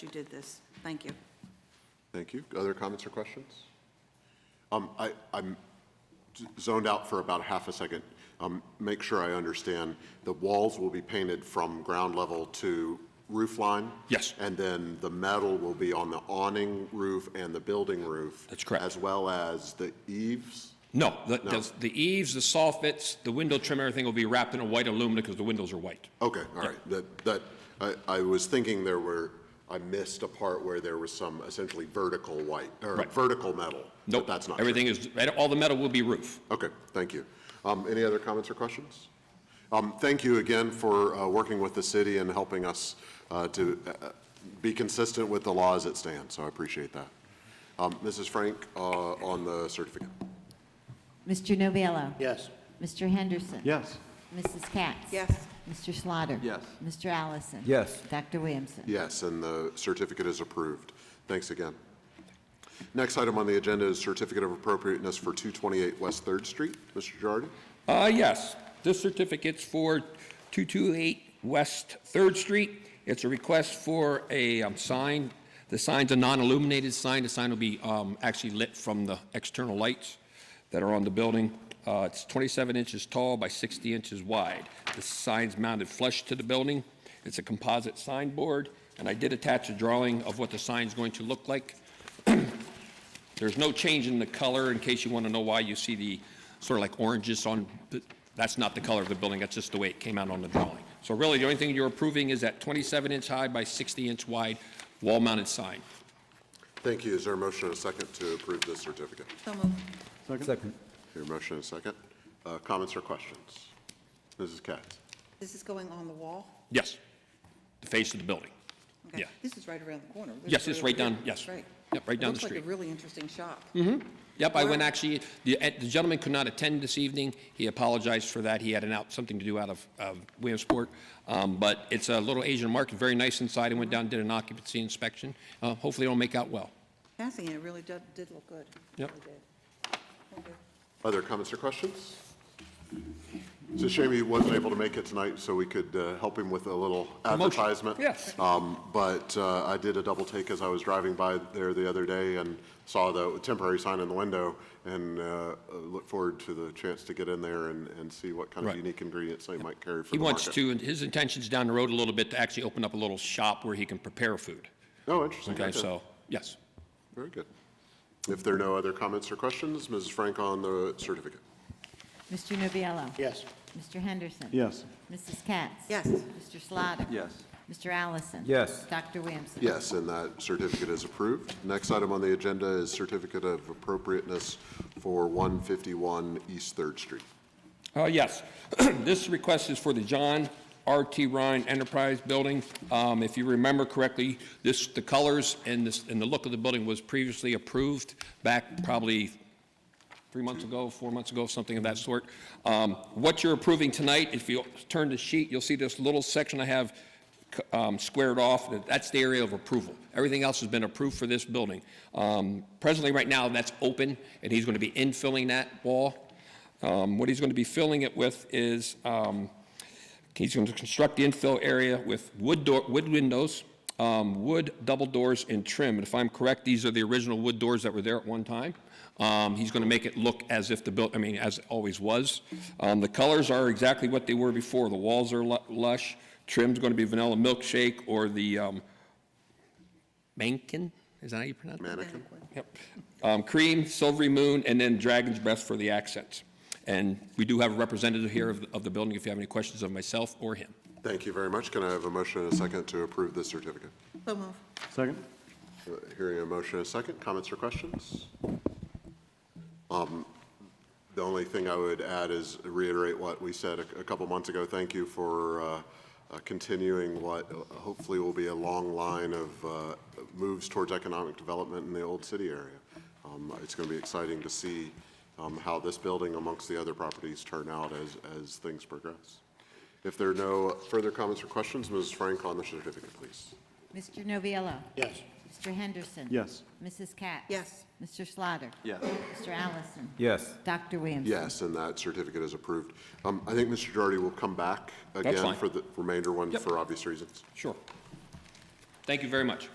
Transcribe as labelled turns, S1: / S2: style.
S1: you did this. Thank you.
S2: Thank you. Other comments or questions? Um, I, I'm z- zoned out for about half a second. Um, make sure I understand. The walls will be painted from ground level to roof line?
S3: Yes.
S2: And then the metal will be on the awning roof and the building roof?
S3: That's correct.
S2: As well as the eaves?
S3: No, the, the- the eaves, the soffits, the window trim, everything will be wrapped in a white aluminum because the windows are white.
S2: Okay, all right. That, that, I, I was thinking there were, I missed a part where there was some essentially vertical white, or
S3: Right.
S2: vertical metal. but
S3: Nope.
S2: That's not true.
S3: Everything is, all the metal will be roof.
S2: Okay, thank you. Um, Any other comments or questions? Um, Thank you again for uh, working with the city and helping us uh, to uh, be consistent with the law as it stands, so I appreciate that. Um, Mrs. Frank, uh, on the certificate.
S4: Mr. Novello?
S5: Yes.
S4: Mr. Henderson?
S6: Yes.
S4: Mrs. Katz?
S1: Yes.
S4: Mr. Slaughter?
S6: Yes.
S4: Mr. Allison?
S6: Yes.
S4: Dr. Williamson?
S2: Yes, and the certificate is approved. Thanks again. Next item on the agenda is certificate of appropriateness for 228 West Third Street. Mr. Girardi?
S3: Uh, yes, this certificate's for 228 West Third Street. It's a request for a um, sign. The sign's a non-illuminated sign. The sign will be um, actually lit from the external lights that are on the building. Uh, It's 27 inches tall by 60 inches wide. The sign's mounted flush to the building. It's a composite signboard, and I did attach a drawing of what the sign's going to look like. There's no change in the color, in case you want to know why you see the sort of like oranges on, the- that's not the color of the building, that's just the way it came out on the drawing. So really, the only thing you're approving is that 27-inch high by 60-inch wide wall-mounted sign.
S2: Thank you. Is there a motion and a second to approve this certificate?
S1: So moved.
S6: Second.
S2: Your motion and a second. Uh, Comments or questions? Mrs. Katz?
S1: This is going on the wall?
S3: Yes, the face of the building.
S1: Okay.
S3: Yeah.
S1: This is right around the corner. This
S3: Yes,
S1: is
S3: it's right
S1: over
S3: down-
S1: here.
S3: yes.
S1: Right.
S3: Yep, right
S1: It
S3: down the
S1: Looks like a
S3: street. Mm-hmm.
S1: really interesting shop.
S3: Yep, I went
S1: Wow.
S3: actually, the eh, the gentleman could not attend this evening. He apologized for that. He had an out, something to do out of of Williamsport. Um, But it's a little Asian market, very nice inside. I went down, did an occupancy inspection. Uh, Hopefully, it'll make out well.
S1: Passing it, it really did, did look good.
S3: Yep.
S1: Really did. Okay.
S2: Other comments or questions? It's a shame he wasn't able to make it tonight, so we could uh, help him with a little
S3: Promotion.
S2: advertisement.
S3: Yes.
S2: Um, But uh, I did a double take as I was driving by there the other day and saw the temporary sign in the window and uh, look forward to the chance to get in there and, and see what kind of
S3: Right.
S2: unique ingredients they might carry for
S3: He
S2: the
S3: wants
S2: market.
S3: to, and his intention's down the road a little bit to actually open up a little shop where he can prepare food.
S2: Oh, interesting.
S3: Okay, so, yes.
S2: Very good. If there are no other comments or questions, Mrs. Frank on the certificate.
S4: Mr. Novello?
S5: Yes.
S4: Mr. Henderson?
S6: Yes.
S4: Mrs. Katz?
S1: Yes.
S4: Mr. Slaughter?
S6: Yes.
S4: Mr. Allison?
S6: Yes.
S4: Dr. Williamson?
S2: Yes, and that certificate is approved. Next item on the agenda is certificate of appropriateness for 151 East Third Street.
S3: Uh, Yes. This request is for the John R.T. Ryan Enterprise Building. Um, If you remember correctly, this, the colors and this, and the look of the building was previously approved back probably three months ago, four months ago, something of that sort. Um, What you're approving tonight, if you turn the sheet, you'll see this little section I have c- um, squared off, that- that's the area of approval. Everything else has been approved for this building. Um, Presently, right now, that's open, and he's going to be infilling that wall. Um, What he's going to be filling it with is, um, he's going to construct the infill area with wood door, wood windows, um, wood double doors and trim. And if I'm correct, these are the original wood doors that were there at one time. Um, He's going to make it look as if the built, I mean, as it always was. Um, The colors are exactly what they were before. The walls are lu- lush. Trim's going to be vanilla milkshake or the um, mankin, is that how you pronounce it?
S2: Mannequin.
S3: Yep. Um, Cream, Silvery Moon, and then Dragon's Breath for the accents. And we do have a representative here of, of the building if you have any questions of myself or him.
S2: Thank you very much. Can I have a motion and a second to approve this certificate?
S1: So moved.
S6: Second.
S2: Uh, Hearing a motion and a second, comments or questions? Um, The only thing I would add is reiterate what we said a a couple months ago. Thank you for uh, uh, continuing what uh, hopefully will be a long line of uh, moves towards economic development in the Old City area. Um, It's going to be exciting to see um, how this building amongst the other properties turn out as, as things progress. If there are no further comments or questions, Mrs. Frank on the certificate, please.
S4: Mr. Novello?
S5: Yes.
S4: Mr. Henderson?
S6: Yes.
S4: Mrs. Katz?
S1: Yes.
S4: Mr. Slaughter?
S6: Yes.
S4: Mr. Allison?
S6: Yes.
S4: Dr. Williamson?
S2: Yes, and that certificate is approved. Um, I think Mr. Girardi will come back again
S3: fine.
S2: for the remainder one
S3: Yep.
S2: for obvious reasons.
S3: Sure. Thank you very much.